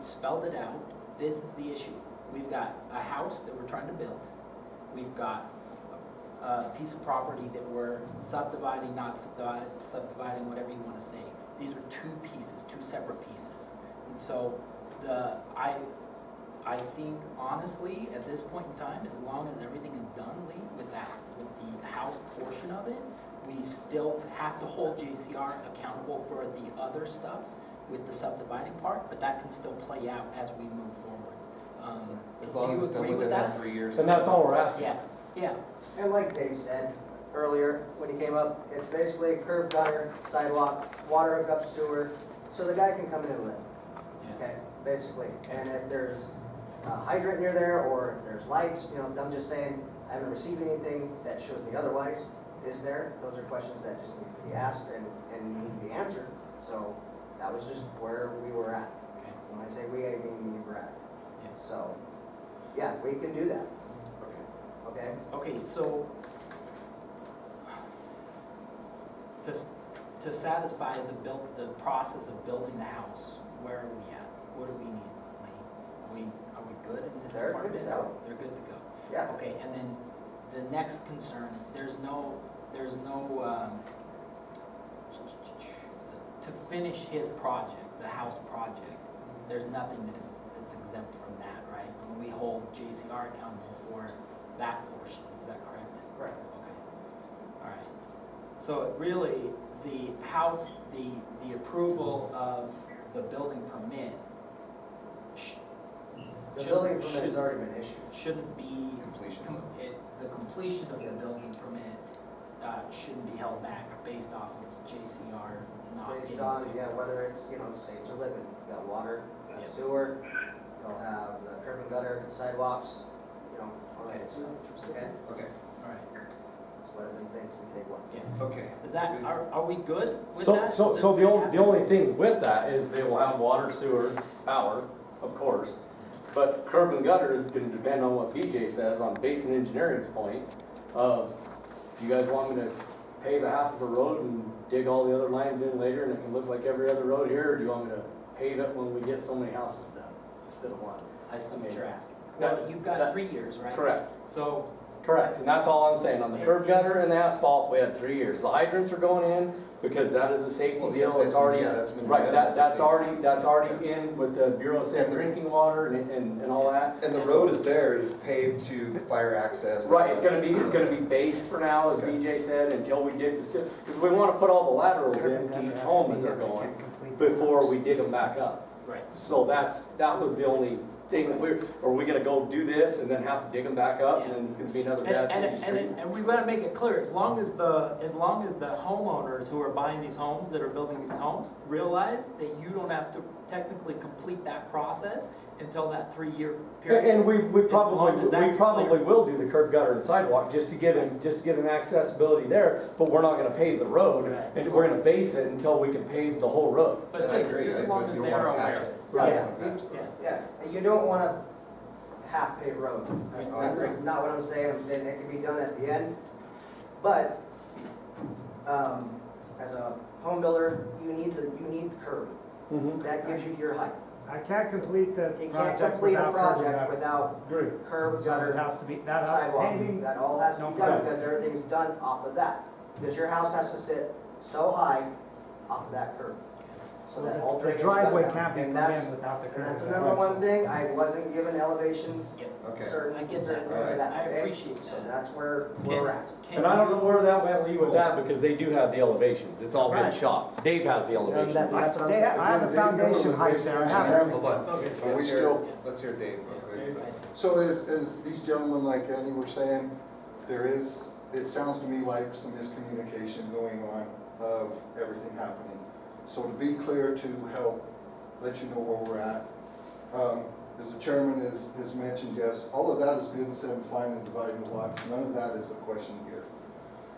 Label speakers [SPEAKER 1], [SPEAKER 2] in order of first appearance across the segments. [SPEAKER 1] spelled it out, this is the issue. We've got a house that we're trying to build, we've got a piece of property that we're subdividing, not subdividing, subdividing, whatever you wanna say. These are two pieces, two separate pieces. And so the, I, I think honestly, at this point in time, as long as everything is done, Lee, with that, with the house portion of it, we still have to hold JCR accountable for the other stuff with the subdividing part, but that can still play out as we move forward. Um,
[SPEAKER 2] As
[SPEAKER 1] do
[SPEAKER 2] long
[SPEAKER 1] you
[SPEAKER 2] as it's done
[SPEAKER 1] agree
[SPEAKER 2] within
[SPEAKER 1] with
[SPEAKER 2] that three years.
[SPEAKER 3] And that's all we're asking.
[SPEAKER 1] Yeah, yeah,
[SPEAKER 4] And like Dave said earlier, when he came up, it's basically a curb gutter, sidewalk, water hookup, sewer, so the guy can come in and live,
[SPEAKER 1] yeah,
[SPEAKER 4] okay, basically. And if there's a hydrant near there, or if there's lights, you know, I'm just saying, I haven't received anything that shows me otherwise, is there? Those are questions that just need to be asked and, and need to be answered, so that was just where we were at.
[SPEAKER 1] okay.
[SPEAKER 4] When I say we, I mean you were at.
[SPEAKER 1] Yeah.
[SPEAKER 4] So, yeah, we can do that. Okay?
[SPEAKER 1] Okay, so to, s- to satisfy the built, the process of building the house, where are we at? What do we need, Lee? Are we, are we good in this
[SPEAKER 4] They're good
[SPEAKER 1] department?
[SPEAKER 4] to go.
[SPEAKER 1] They're good to go.
[SPEAKER 4] Yeah.
[SPEAKER 1] Okay, and then the next concern, there's no, there's no, um, to finish his project, the house project, there's nothing that is, that's exempt from that, right? I mean, We hold JCR accountable for that portion, is that correct?
[SPEAKER 4] Right.
[SPEAKER 1] Okay, all right. So really, the house, the, the approval of the building permit sh-
[SPEAKER 4] The
[SPEAKER 1] should-
[SPEAKER 4] building permit has
[SPEAKER 1] should-
[SPEAKER 4] already been issued.
[SPEAKER 1] shouldn't be,
[SPEAKER 2] Completion
[SPEAKER 1] com-
[SPEAKER 2] though.
[SPEAKER 1] it- the completion of the building permit uh, shouldn't be held back based off of JCR not
[SPEAKER 4] Based
[SPEAKER 1] being-
[SPEAKER 4] on, yeah, whether it's, you know, safe to live in, you got water, you
[SPEAKER 1] Yeah.
[SPEAKER 4] got sewer, you'll have the curb and gutter, sidewalks, you know, all that good stuff. Okay?
[SPEAKER 2] Okay,
[SPEAKER 1] All right,
[SPEAKER 4] That's what I've been saying since day one.
[SPEAKER 1] yeah.
[SPEAKER 2] okay.
[SPEAKER 1] Is that, are, are we good with
[SPEAKER 3] So,
[SPEAKER 1] that?
[SPEAKER 3] so,
[SPEAKER 1] Is
[SPEAKER 3] so the
[SPEAKER 1] everything
[SPEAKER 3] only, the only thing with that is they will have water, sewer, power, of course. But curb and gutter is gonna depend on what BJ says on basin engineering's point of, do you guys want me to pave a half of a road and dig all the other lines in later and it can look like every other road here? Or do you want me to pave it when we get so many houses done instead of one?
[SPEAKER 1] I see what you're asking.
[SPEAKER 3] That-
[SPEAKER 1] Well, you've got
[SPEAKER 3] that-
[SPEAKER 1] three years, right?
[SPEAKER 3] Correct,
[SPEAKER 1] So,
[SPEAKER 3] correct. And that's all I'm saying. On the curb gutter and the asphalt, we had three years. The hydrants are going in because that is a safety
[SPEAKER 2] Well, yeah,
[SPEAKER 3] deal.
[SPEAKER 2] that's-
[SPEAKER 3] It's already
[SPEAKER 2] yeah, that's been-
[SPEAKER 3] Right, that, that's
[SPEAKER 2] Yeah.
[SPEAKER 3] already, that's already in with the Bureau of Safe
[SPEAKER 2] And the-
[SPEAKER 3] Drinking Water and, and, and all that.
[SPEAKER 2] And the road is there, is paved to fire access.
[SPEAKER 3] Right, it's gonna be, it's gonna be based for now, as
[SPEAKER 2] Okay.
[SPEAKER 3] BJ said, until we dig the, si- cause we wanna put all the laterals in to each home as they're going before we dig them back up.
[SPEAKER 1] right,
[SPEAKER 3] So that's, that was the only thing that we're, are we gonna go do this and then have to dig them back up and then it's gonna be another
[SPEAKER 1] And,
[SPEAKER 3] bad
[SPEAKER 1] and,
[SPEAKER 3] city
[SPEAKER 1] and,
[SPEAKER 3] street?
[SPEAKER 1] and- and we gotta make it clear, as long as the, as long as the homeowners who are buying these homes, that are building these homes, realize that you don't have to technically complete that process until that three-year period.
[SPEAKER 3] And we, we
[SPEAKER 1] As
[SPEAKER 3] probably,
[SPEAKER 1] long as
[SPEAKER 3] we
[SPEAKER 1] that's
[SPEAKER 3] probably
[SPEAKER 1] clear.
[SPEAKER 3] will do the curb gutter and sidewalk, just to give him, just to give him accessibility there, but we're not gonna pave the road,
[SPEAKER 1] Right.
[SPEAKER 3] and we're gonna base it until we can pave the whole road.
[SPEAKER 1] But just, just as long as they're aware.
[SPEAKER 3] Right.
[SPEAKER 1] Yeah,
[SPEAKER 4] Yeah, you don't wanna half pave road.
[SPEAKER 1] Right.
[SPEAKER 2] I agree.
[SPEAKER 4] That's not what I'm saying, I'm saying it can be done at the end, but, um, as a home builder, you need the, you need the curb.
[SPEAKER 3] Mhm.
[SPEAKER 4] That gives you your height.
[SPEAKER 5] I can't complete the
[SPEAKER 4] You can't
[SPEAKER 5] project
[SPEAKER 4] complete a
[SPEAKER 5] without
[SPEAKER 4] project
[SPEAKER 5] curb
[SPEAKER 4] without
[SPEAKER 5] gutter.
[SPEAKER 4] curb,
[SPEAKER 5] So it
[SPEAKER 4] gutter,
[SPEAKER 5] has to be, that has
[SPEAKER 4] sidewalk,
[SPEAKER 5] paving,
[SPEAKER 4] that all has to
[SPEAKER 5] No
[SPEAKER 4] be done,
[SPEAKER 3] problem.
[SPEAKER 4] because everything's done off of that. Because your house has to sit so high off of that curb. So that all
[SPEAKER 5] the
[SPEAKER 4] drainage goes
[SPEAKER 5] driveway
[SPEAKER 4] down.
[SPEAKER 5] can't be
[SPEAKER 4] And
[SPEAKER 5] put
[SPEAKER 4] that's-
[SPEAKER 5] in without the curb.
[SPEAKER 4] And that's the
[SPEAKER 5] gutter.
[SPEAKER 4] number one thing, I wasn't given elevations,
[SPEAKER 1] yeah,
[SPEAKER 2] Okay.
[SPEAKER 4] certain,
[SPEAKER 1] I
[SPEAKER 4] certain
[SPEAKER 1] get
[SPEAKER 4] things
[SPEAKER 1] that.
[SPEAKER 4] of that.
[SPEAKER 1] I
[SPEAKER 4] okay?
[SPEAKER 1] appreciate
[SPEAKER 4] So
[SPEAKER 1] that.
[SPEAKER 4] that's where
[SPEAKER 1] Can-
[SPEAKER 4] we're at.
[SPEAKER 1] can
[SPEAKER 3] And I don't know
[SPEAKER 1] you-
[SPEAKER 3] where that went, Lee, with that, because they do have the elevations, it's all been
[SPEAKER 1] Right.
[SPEAKER 3] shot. Dave has the
[SPEAKER 4] And that's,
[SPEAKER 3] elevations.
[SPEAKER 4] that's what I'm
[SPEAKER 5] They
[SPEAKER 4] saying.
[SPEAKER 5] have- I have a foundation height there, I have
[SPEAKER 2] Hold
[SPEAKER 5] everything.
[SPEAKER 2] on,
[SPEAKER 1] Okay.
[SPEAKER 2] Are we
[SPEAKER 6] Let's hear-
[SPEAKER 2] still, let's hear Dave real quick.
[SPEAKER 6] So as, as these gentlemen like Andy were saying, there is, it sounds to me like some miscommunication going on of everything happening. So to be clear, to help let you know where we're at, um, as the chairman has, has mentioned, yes, all of that is good and said and fine and dividing the lots, none of that is a question here.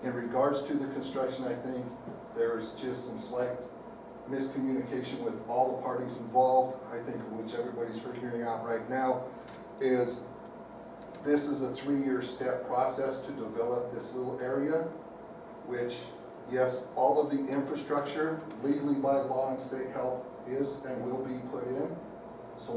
[SPEAKER 6] In regards to the construction, I think there is just some slight miscommunication with all the parties involved, I think which everybody's figuring out right now, is this is a three-year step process to develop this little area, which, yes, all of the infrastructure legally by law and state health is and will be put in.